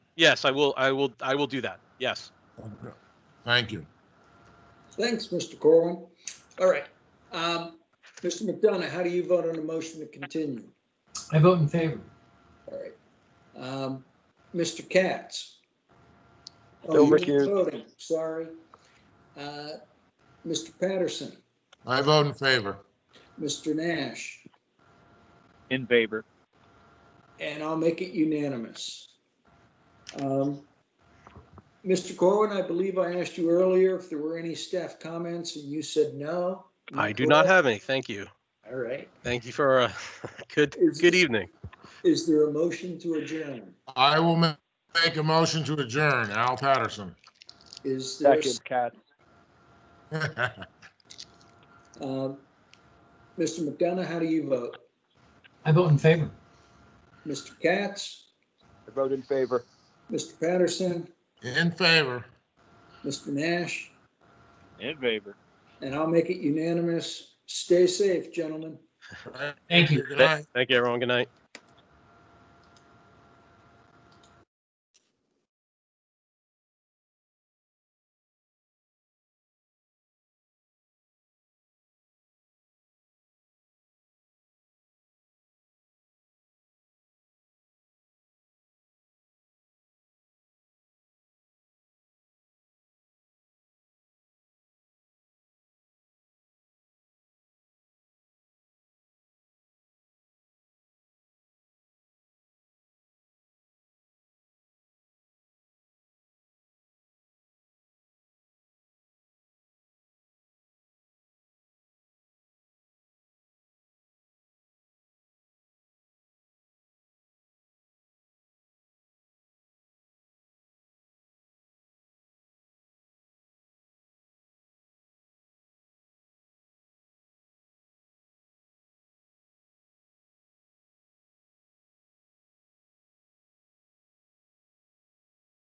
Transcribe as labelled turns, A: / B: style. A: Yes, I will. I will. I will do that. Yes.
B: Thank you.
C: Thanks, Mr. Corwin. All right. Um, Mr. McDonough, how do you vote on the motion to continue?
D: I vote in favor.
C: All right. Um, Mr. Katz? Oh,
E: Bill
C: you weren't
E: recused.
C: voting, Sorry. Uh, Mr. Patterson,
B: I vote in favor.
C: Mr. Nash,
E: In favor.
C: and I'll make it unanimous. Um, Mr. Corwin, I believe I asked you earlier if there were any staff comments and you said no. Am
A: I do not
C: correct?
A: have any. Thank you.
C: All right.
A: Thank you for a good
C: Is-
A: good evening.
C: Is there a motion to adjourn?
B: I will ma- make a motion to adjourn. Al Patterson.
C: Is there, a
E: Second, Cat.
C: s- um, Mr. McDonough, how do you vote?
D: I vote in favor.
C: Mr. Katz,
E: I vote in favor.
C: Mr. Patterson,
B: In favor.
C: Mr. Nash,
E: In favor.
C: and I'll make it unanimous. Stay safe, gentlemen.
D: Thank you.
B: Good night.
A: Thank you, everyone. Good night.